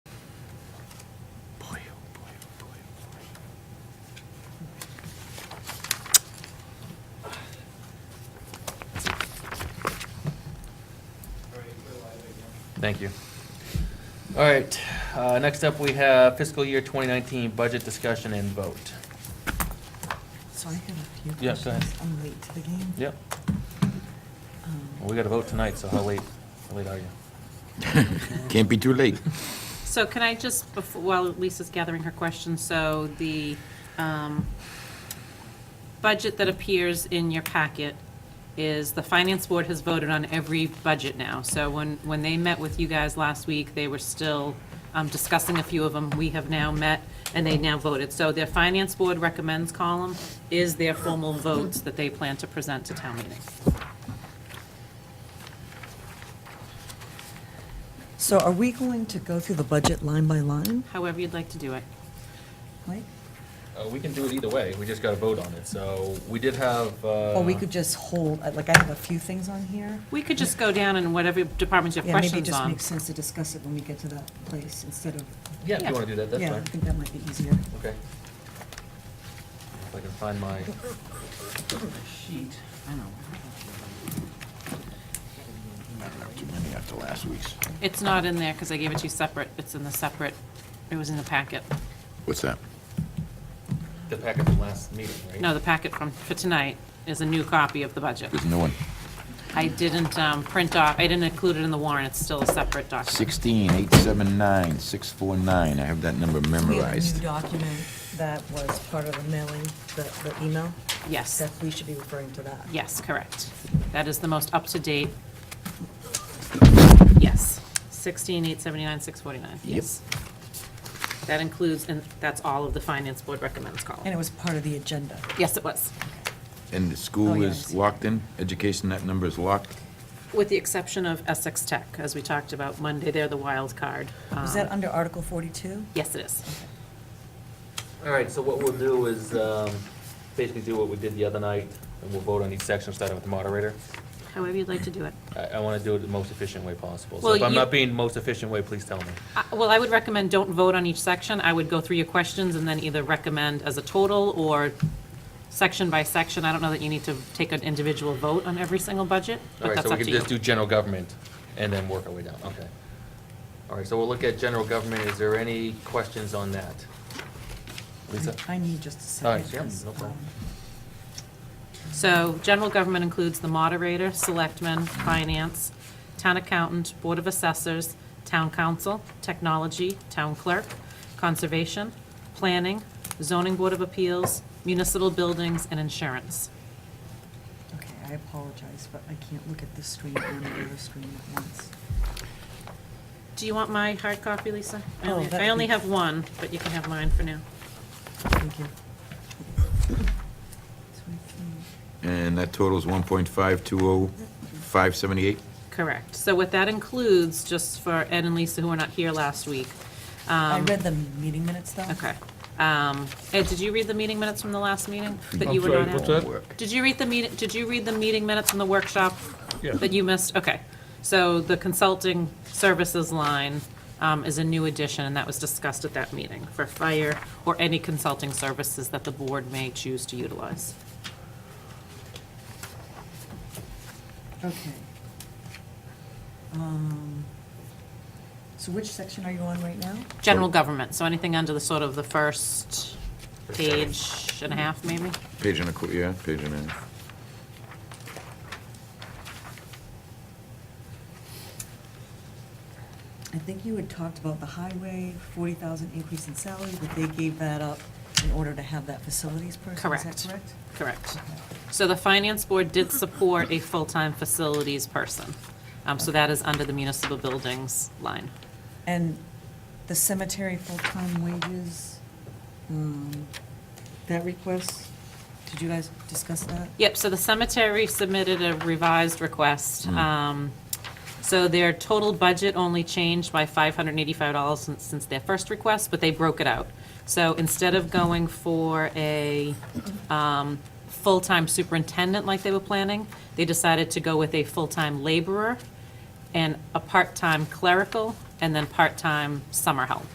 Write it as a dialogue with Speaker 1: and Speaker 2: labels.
Speaker 1: Thank you. All right, uh, next up, we have fiscal year 2019 budget discussion and vote.
Speaker 2: So I have a few
Speaker 1: Yeah,
Speaker 2: questions.
Speaker 1: go ahead.
Speaker 2: I'm late to the game.
Speaker 1: Yep,
Speaker 2: Um,
Speaker 1: well, we got a vote tonight, so how late, how late are you?
Speaker 3: Can't be too late.
Speaker 4: So can I just, befo- while Lisa's gathering her questions, so the um, budget that appears in your packet is, the Finance Board has voted on every budget now. So when, when they met with you guys last week, they were still um, discussing a few of them. We have now met, and they now voted. So their Finance Board recommends column is their formal votes that they plan to present to town meeting.
Speaker 2: So are we going to go through the budget line by line,
Speaker 4: However you'd like to do it.
Speaker 2: Mike?
Speaker 1: Uh, we can do it either way, we just got to vote on it, so we did have, uh.
Speaker 2: Or we could just hold, uh, like, I have a few things on here.
Speaker 4: We could just go down and whatever departments you have
Speaker 2: Yeah, maybe it
Speaker 4: questions
Speaker 2: just
Speaker 4: on.
Speaker 2: makes sense to discuss it when we get to that place instead of,
Speaker 1: Yeah, if
Speaker 4: Yeah.
Speaker 1: you want to do that, that's
Speaker 2: yeah, I
Speaker 1: fine.
Speaker 2: think that might be easier.
Speaker 1: Okay. If I can find my sheet.
Speaker 3: Too many after last week's.
Speaker 4: It's not in there because I gave it to you separate. It's in the separate, it was in the packet.
Speaker 3: What's that?
Speaker 1: The packet from last meeting, right?
Speaker 4: No, the packet from, for tonight is a new copy of the budget.
Speaker 3: There's no one.
Speaker 4: I didn't um, print off, I didn't include it in the warrant. It's still a separate document.
Speaker 3: 16, 879, 649. I have that number
Speaker 2: We have a new
Speaker 3: memorized.
Speaker 2: document that was part of the mailing, the, the email,
Speaker 4: Yes,
Speaker 2: that we should be referring to that.
Speaker 4: yes, correct. That is the most up-to-date. Yes, 16, 879, 649.
Speaker 3: Yep.
Speaker 4: Yes. That includes, and that's all of the finance board recommends
Speaker 2: And it
Speaker 4: column.
Speaker 2: was part of the agenda.
Speaker 4: Yes, it was.
Speaker 3: And the
Speaker 2: Oh,
Speaker 3: school
Speaker 2: yeah, I
Speaker 3: is
Speaker 2: see.
Speaker 3: locked in? Education, that number is locked?
Speaker 4: With the exception of Essex Tech, as we talked about Monday, they're the wild card.
Speaker 2: Was
Speaker 4: Um,
Speaker 2: that under Article 42?
Speaker 4: Yes, it is.
Speaker 1: All right, so what we'll do is, um, basically do what we did the other night, and we'll vote on each section, starting with the moderator.
Speaker 4: However you'd like to do it.
Speaker 1: I, I want to do it the most efficient way possible. So
Speaker 4: Well,
Speaker 1: if I'm
Speaker 4: you-
Speaker 1: not being most efficient way, please tell me.
Speaker 4: Uh, Well, I would recommend don't vote on each section. I would go through your questions and then either recommend as a total or section by section. I don't know that you need to take an individual vote on every single budget,
Speaker 1: All
Speaker 4: but
Speaker 1: right,
Speaker 4: that's
Speaker 1: so we
Speaker 4: up
Speaker 1: can
Speaker 4: to
Speaker 1: just do
Speaker 4: you.
Speaker 1: general government and then work our way down, okay. All right, so we'll look at general government. Is there any questions on that? Lisa?
Speaker 2: I need just a
Speaker 1: All right,
Speaker 2: second.
Speaker 1: yeah,
Speaker 2: 'cause,
Speaker 1: no problem.
Speaker 2: um,
Speaker 4: So general government includes the moderator, selectmen, finance, town accountant, board of assessors, town council, technology, town clerk, conservation, planning, zoning board of appeals, municipal buildings, and insurance.
Speaker 2: Okay, I apologize, but I can't look at this screen and the other screen at once.
Speaker 4: Do you want my hard copy, Lisa? I
Speaker 2: Oh,
Speaker 4: only-
Speaker 2: that'd
Speaker 4: I only
Speaker 2: be-
Speaker 4: have one, but you can have mine for now.
Speaker 2: Thank you.
Speaker 3: And that totals 1.520578?
Speaker 4: Correct. So what that includes, just for Ed and Lisa who were not here last week.
Speaker 2: I
Speaker 4: um,
Speaker 2: read the meeting minutes, though.
Speaker 4: Okay. Um, Ed, did you read the meeting minutes from the last meeting that you were
Speaker 5: sorry,
Speaker 4: not
Speaker 5: what's
Speaker 4: at?
Speaker 5: that?
Speaker 4: Did you read the meeting, did you read the meeting minutes from the workshop
Speaker 5: Yeah.
Speaker 4: that you missed? Okay. So the consulting services line um, is a new addition, and that was discussed at that meeting for fire or any consulting services that the board may choose to utilize.
Speaker 2: Okay. Um, So which section are you on right now?
Speaker 4: General government, so anything under the sort of the first page and a half, maybe?
Speaker 3: Page and a, qu- yeah, page and a half.
Speaker 2: I think you had talked about the highway, 40,000 increase in salary, but they gave that up in order to have that facilities person, is that
Speaker 4: Correct.
Speaker 2: correct?
Speaker 4: Correct. So the finance board did support a full-time facilities person. Um, So that is under the municipal buildings line.
Speaker 2: And the cemetery full-time wages, um, that request, did you guys discuss that?
Speaker 4: Yep, so the cemetery submitted a revised request. Um, So their total budget only changed by $585 since- since their first request, but they broke it out. So instead of going for a um, full-time superintendent like they were planning, they decided to go with a full-time laborer and a part-time clerical, and then part-time summer help.